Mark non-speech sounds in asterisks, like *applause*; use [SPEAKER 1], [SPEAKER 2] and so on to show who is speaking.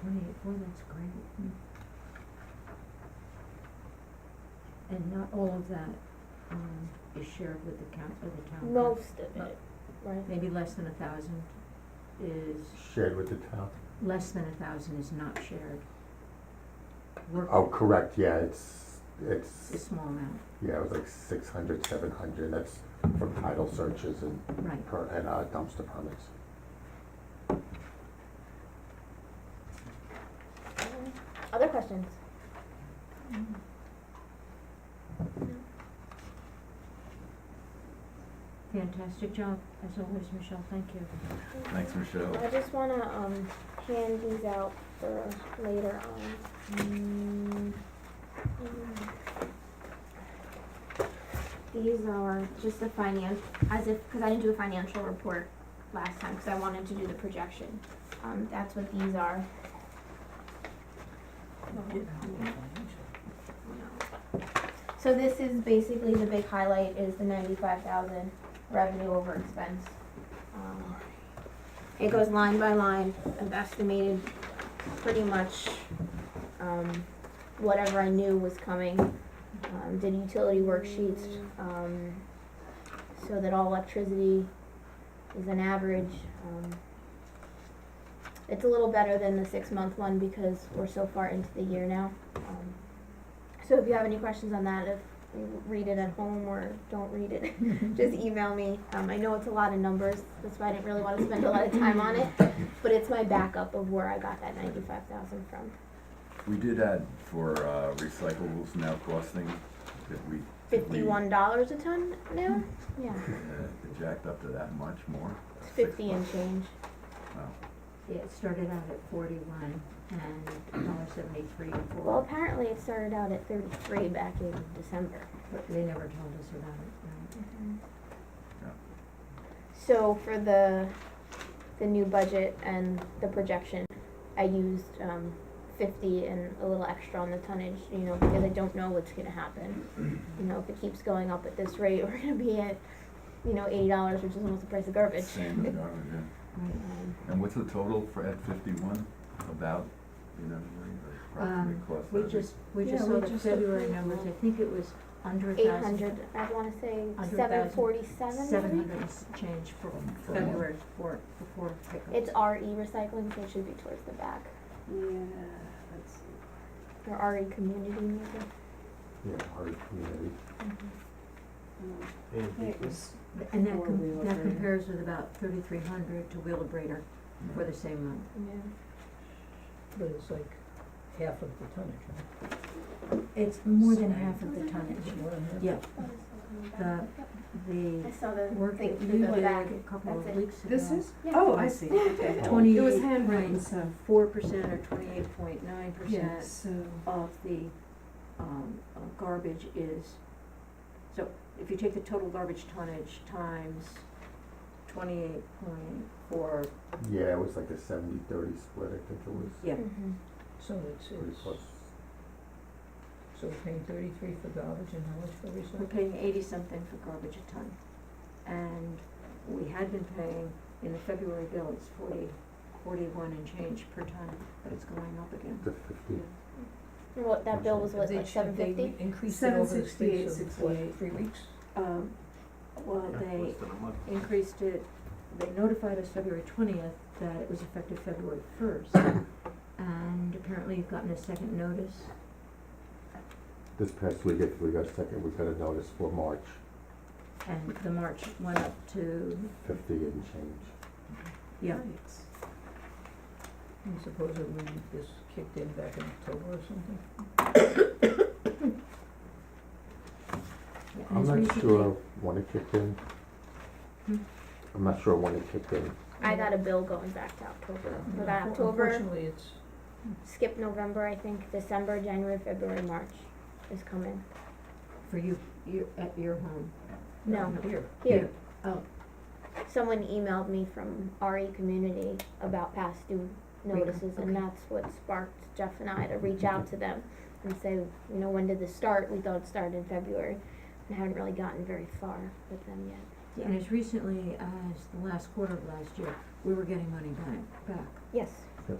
[SPEAKER 1] twenty-eight, boy, that's great. And not all of that, um, is shared with the coun- with the town.
[SPEAKER 2] most of it, right?
[SPEAKER 1] Maybe less than a thousand is,
[SPEAKER 3] shared with the town.
[SPEAKER 1] less than a thousand is not shared.
[SPEAKER 3] Oh,
[SPEAKER 1] Work
[SPEAKER 3] correct, yeah, it's,
[SPEAKER 1] is a
[SPEAKER 3] it's,
[SPEAKER 1] small amount,
[SPEAKER 3] yeah, it was like six hundred, seven hundred, that's from title searches and
[SPEAKER 1] right.
[SPEAKER 3] per, and uh, dumpster permits.
[SPEAKER 2] Um, Other questions?
[SPEAKER 1] Fantastic job, as always, Michelle, thank you.
[SPEAKER 4] Thanks, Michelle.
[SPEAKER 2] I just wanna, um, hand these out for later on. Mm, mm.
[SPEAKER 5] These are just the finance, as if, because I didn't do a financial report last time, because I wanted to do the projection. Um, that's what these are.
[SPEAKER 2] Oh.
[SPEAKER 5] So this is basically the big highlight is the ninety-five thousand revenue over expense. Um, It goes line by line, I've estimated pretty much, um, whatever I knew was coming. Um, did utility worksheets, um, so that all electricity is an average, um. It's a little better than the six-month one because we're so far into the year now, um. So if you have any questions on that, if you read it at home or don't read it, *laughs*
[SPEAKER 1] *laughs*
[SPEAKER 5] just email me. Um, I know it's a lot of numbers, that's why I didn't really wanna spend a lot of time on it, but it's my backup of where I got that ninety-five thousand from.
[SPEAKER 4] We did add for uh, recyclables now costing that we. that we,
[SPEAKER 2] Fifty-one dollars a ton now? Yeah,
[SPEAKER 4] uh, Jacked up to that much more.
[SPEAKER 2] it's fifty and
[SPEAKER 4] Six
[SPEAKER 2] change.
[SPEAKER 4] bucks. Wow.
[SPEAKER 1] It started out at forty-one and dollar seventy-three for.
[SPEAKER 2] Well, apparently it started out at thirty-three back in December.
[SPEAKER 1] But they never told us about it,
[SPEAKER 2] Mm-hmm.
[SPEAKER 4] Yeah.
[SPEAKER 2] So for the, the new budget and the projection, I used, um, fifty and a little extra on the tonnage, you know, because I don't know what's gonna happen. You know, if it keeps going up at this rate, *laughs* we're gonna be at, you know, eighty dollars, which is almost the price of garbage.
[SPEAKER 4] Same as garbage, yeah.
[SPEAKER 1] right?
[SPEAKER 2] Um,
[SPEAKER 4] And what's the total for at fifty-one about, you know, what the
[SPEAKER 1] Um,
[SPEAKER 4] approximate cost?
[SPEAKER 1] We
[SPEAKER 4] of it?
[SPEAKER 1] just, we
[SPEAKER 6] Yeah,
[SPEAKER 1] just
[SPEAKER 6] we
[SPEAKER 1] saw the
[SPEAKER 6] just
[SPEAKER 1] February
[SPEAKER 6] approved
[SPEAKER 1] numbers,
[SPEAKER 6] one.
[SPEAKER 1] I think it was under a
[SPEAKER 2] Eight
[SPEAKER 1] thousand.
[SPEAKER 2] hundred, I wanna say
[SPEAKER 1] Hundred
[SPEAKER 2] seven
[SPEAKER 1] thousand.
[SPEAKER 2] forty-seven
[SPEAKER 1] Seven hundred is change for
[SPEAKER 4] From- from what?
[SPEAKER 1] February for, before pickup.
[SPEAKER 2] It's RE recycling, so it should be towards the back,
[SPEAKER 6] Yeah, let's see.
[SPEAKER 2] or RE community maybe.
[SPEAKER 3] Yeah, our community.
[SPEAKER 1] Mm-hmm.
[SPEAKER 6] Um, I think it
[SPEAKER 7] And
[SPEAKER 6] was
[SPEAKER 1] And that,
[SPEAKER 6] before
[SPEAKER 1] com-
[SPEAKER 6] Wheeler
[SPEAKER 1] that
[SPEAKER 6] Brader.
[SPEAKER 1] compares with about thirty-three hundred to Wheeler Brader for the same month.
[SPEAKER 2] Yeah.
[SPEAKER 7] but it's like half of the tonnage, right?
[SPEAKER 1] It's more than half of the
[SPEAKER 7] It's
[SPEAKER 1] tonnage.
[SPEAKER 7] more than half.
[SPEAKER 1] Yeah, the,
[SPEAKER 5] I
[SPEAKER 1] the
[SPEAKER 5] saw the
[SPEAKER 1] work
[SPEAKER 5] thing
[SPEAKER 1] that
[SPEAKER 5] for
[SPEAKER 1] you
[SPEAKER 5] the
[SPEAKER 1] did
[SPEAKER 5] back.
[SPEAKER 1] a couple of
[SPEAKER 5] That's it.
[SPEAKER 1] weeks ago.
[SPEAKER 6] This is,
[SPEAKER 5] Yeah.
[SPEAKER 6] oh, I see, okay.
[SPEAKER 1] Twenty-
[SPEAKER 6] It was handwritten, so,
[SPEAKER 1] Four percent or twenty-eight point nine
[SPEAKER 6] yeah,
[SPEAKER 1] percent
[SPEAKER 6] so,
[SPEAKER 1] of the, um, uh, garbage is, so if you take the total garbage tonnage times twenty-eight point four,
[SPEAKER 3] Yeah, it was like a seventy, thirty split, I think it was,
[SPEAKER 1] yeah,
[SPEAKER 2] Mhm.
[SPEAKER 7] So it's,
[SPEAKER 3] pretty
[SPEAKER 7] it's,
[SPEAKER 3] close.
[SPEAKER 7] so we're paying thirty-three for garbage and how much for
[SPEAKER 1] we're
[SPEAKER 7] recycling?
[SPEAKER 1] paying eighty-something for garbage a ton. And we had been paying, in the February bill, it's forty, forty-one and change per ton, but it's going up again.
[SPEAKER 3] The fifty,
[SPEAKER 2] And What, that bill was
[SPEAKER 7] Have
[SPEAKER 2] what,
[SPEAKER 7] they-
[SPEAKER 2] like seven
[SPEAKER 7] have they
[SPEAKER 2] fifty?
[SPEAKER 7] increased it over the space of, what,
[SPEAKER 6] 768,
[SPEAKER 7] three weeks?
[SPEAKER 1] Um, well, they
[SPEAKER 4] Less than a month.
[SPEAKER 1] increased it, they notified us February twentieth that it was effective February first. And apparently you've gotten a second notice.
[SPEAKER 3] this past week, if we got a second, we got a notice for March,
[SPEAKER 1] And the March went up to,
[SPEAKER 3] fifty and change.
[SPEAKER 1] yeah,
[SPEAKER 6] Right.
[SPEAKER 7] And suppose that we this kicked in back in October or something?
[SPEAKER 1] yeah, and
[SPEAKER 3] I'm
[SPEAKER 1] it's
[SPEAKER 3] not
[SPEAKER 1] recently-
[SPEAKER 3] sure when it kicked in.
[SPEAKER 1] Hmm?
[SPEAKER 3] I'm not sure when it kicked in,
[SPEAKER 2] I got a bill going back to October.
[SPEAKER 3] Yeah.
[SPEAKER 2] We got
[SPEAKER 7] Unfor-
[SPEAKER 2] October,
[SPEAKER 7] Unfortunately, it's,
[SPEAKER 2] skip November, I think, December, January, February, March is coming.
[SPEAKER 1] For you, you, at your home.
[SPEAKER 2] No,
[SPEAKER 7] here,
[SPEAKER 2] here,
[SPEAKER 1] Oh,
[SPEAKER 2] someone emailed me from RE Community about past due notices, and
[SPEAKER 1] okay.
[SPEAKER 2] that's what sparked Jeff and I to reach out to them and say, you know, when did this start? We thought it started in February, and haven't really gotten very far with them yet.
[SPEAKER 1] yeah, and as recently as the last quarter of last year, we were getting money back, back.
[SPEAKER 2] Yes,
[SPEAKER 3] yes.